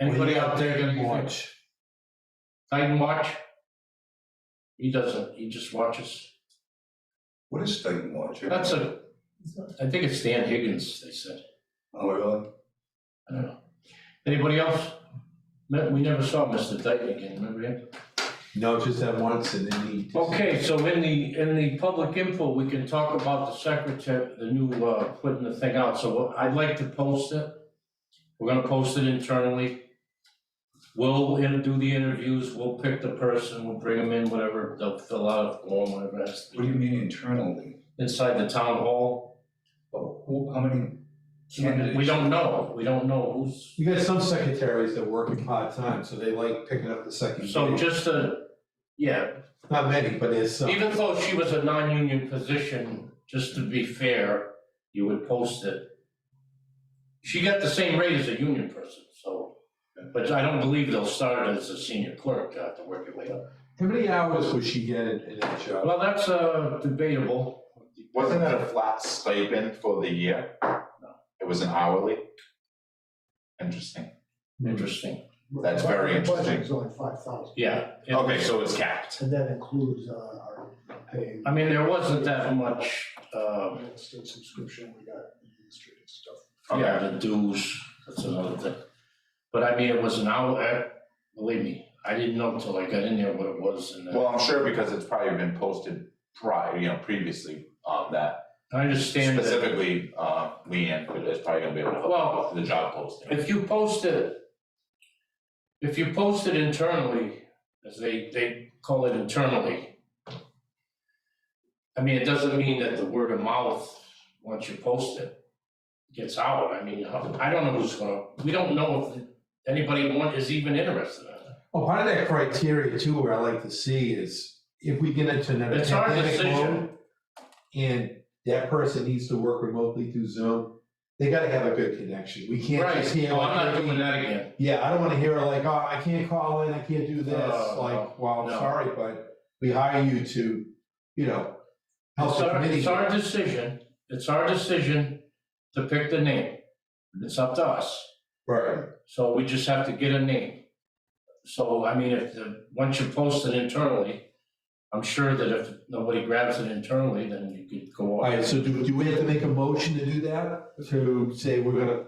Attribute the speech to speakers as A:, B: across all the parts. A: Anybody out there can watch? I can watch? He doesn't, he just watches.
B: What is state watch?
A: That's a, I think it's Dan Higgins, they said.
B: Oh, really?
A: I don't know. Anybody else? Me- We never saw Mr. Dyton again, remember him?
C: No, just that once and then he.
A: Okay, so in the, in the public info, we can talk about the secretary, the new, uh, putting the thing out, so what- I'd like to post it. We're gonna post it internally. We'll in- do the interviews, we'll pick the person, we'll bring them in, whatever, they'll fill out a form, whatever has to
B: What do
A: be.
B: you mean internally?
A: Inside the town hall,
B: Oh, who, how many candidates?
A: we don't know, we don't know who's,
C: You got some secretaries that work in part-time, so they like picking up the second
A: so
C: gig.
A: just a, yeah,
C: Not many, but there's some.
A: Even though she was a non-union position, just to be fair, you would post it. She got the same rate as a union person, so, but I don't believe they'll start as a senior clerk, you have to work your way up.
C: How many hours would she get in, in that job?
A: Well, that's uh, debatable.
D: Wasn't that a flat stipend for the year?
A: No.
D: It was an hourly? Interesting.
A: Interesting,
D: That's very
E: Our budget
D: interesting.
E: is only five thousand,
A: yeah. It-
D: Okay, so it's capped.
E: and that includes uh, our pay.
A: I mean, there wasn't that much, um,
E: Real estate subscription, we got administrative stuff.
A: Oh, yeah, the dues, that's another thing. But I mean, it was an hour, eh, believe me, I didn't know till I got in there what it was and. uh,
D: Well, I'm sure because it's probably been posted prior, you know, previously on that.
A: I understand that.
D: Specifically, uh, Leanne is probably gonna be able to help
A: Well,
D: with the job posting.
A: If you post it, if you post it internally, as they, they call it internally, I mean, it doesn't mean that the word of mouth, once you post it, gets out. I mean, how- I don't know who's gonna, we don't know if anybody want, is even interested in it.
C: Well, Oh, part of that criteria too, where I like to see is if we get into another
A: It's our
C: pandemic
A: decision.
C: mode and that person needs to work remotely through Zoom, they gotta have a good connection. We can't just
A: Right,
C: hear
A: well, Oh, I'm
C: like,
A: not doing that again.
C: yeah, I don't wanna hear like, oh, I can't call in, I can't do
A: Oh,
C: this, like, well, I'm
A: no.
C: sorry, but we hire you to, you know, help
A: It's
C: the
A: our,
C: committee.
A: Oh, it's our decision, it's our decision to pick the name. It's up to us.
C: Right,
A: So we just have to get a name. So, I mean, if the, once you post it internally, I'm sure that if nobody grabs it internally, then you could go
C: all
A: on.
C: right, so do, do we have to make a motion to do that, to say we're gonna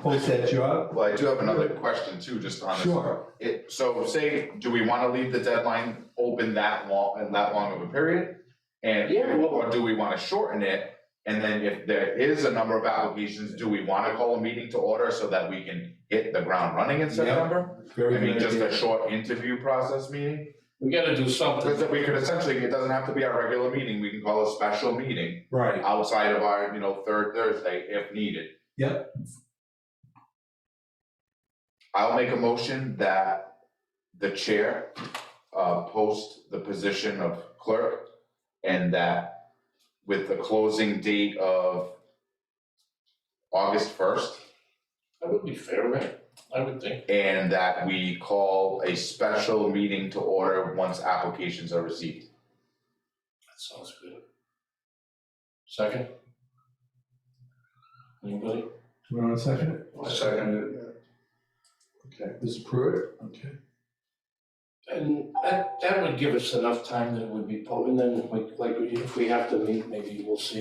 C: post that job?
D: Well, I do have another question too, just on this.
C: Sure,
D: It, so say, do we wanna leave the deadline open that long, and that long of a period? And,
A: Yeah, well-
D: or do we wanna shorten it? And then if there is a number of applications, do we wanna call a meeting to order so that we can hit the ground running in
C: Yeah.
D: September?
C: very
D: I
C: good
D: mean, just
C: idea.
D: a short interview process meeting?
A: We gotta do something.
D: Because we could essentially, it doesn't have to be our regular meeting, we can call a special meeting
C: Right.
D: outside of our, you know, third Thursday if needed.
C: Yep.
D: I'll make a motion that the chair uh post the position of clerk and that with the closing date of August first,
A: That would be fair, right? I would think.
D: and that we call a special meeting to order once applications are received.
A: That sounds good. Second? Anybody?
C: You want a second?
B: I second it.
C: Okay, this is Pruitt, okay.
A: And that, that would give us enough time that it would be, po- and then we- like, if we have to meet, maybe we'll see.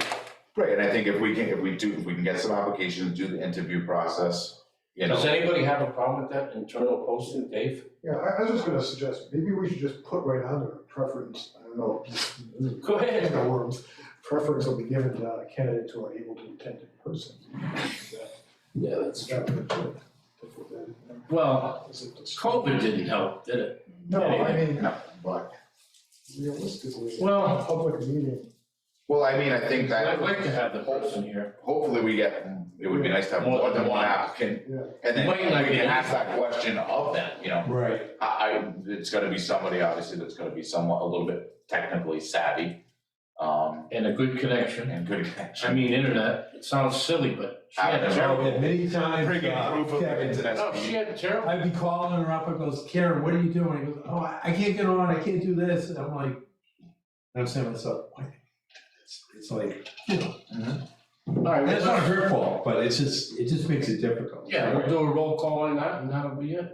D: Right, and I think if we can, if we do, if we can get some applications, do the interview process, you
A: Does
D: know,
A: anybody have a problem with that internal posting, Dave?
E: Yeah, I, I was just gonna suggest, maybe we should just put right on there preference, I don't know.
A: Go ahead.
E: No words. Preference will be given to uh, candidates who are able to attend in person.
A: Yeah, that's.
E: That would do it.
A: Well,
E: uh, Is it just-
A: COVID didn't help, did it?
E: No, I mean,
D: no, but,
E: realistically,
A: Well-
E: a public meeting,
D: well, I mean, I think that
A: I'd like to have the person here.
D: hopefully we get, it would be nice to have more than one applicant.
E: yeah.
D: And then we
A: Might not be-
D: can ask that question of them, you know,
C: Right,
D: I, I, it's gonna be somebody obviously that's gonna be somewhat, a little bit technically savvy. Um,
A: And a good connection.
D: and good
A: I
D: connection.
A: mean, internet, it sounds silly, but she
D: I
A: had
D: don't
C: I've
A: terrible.
D: know.
C: had many times. uh,
D: Friggin' proof of
C: Kevin,
D: internet
A: No,
D: speed.
A: Oh, she had terrible.
C: I'd be calling her up and goes, Karen, what are you doing? He goes, oh, I, I can't get on, I can't do this, and I'm like, and I'm saying to myself, why? can't I do this?" It's like, you know,
D: Mhm.
A: All right,
C: That's not
A: well,
C: her fault, but it's just, it just makes it difficult.
A: yeah, we'll do a roll call on that, and that'll be it.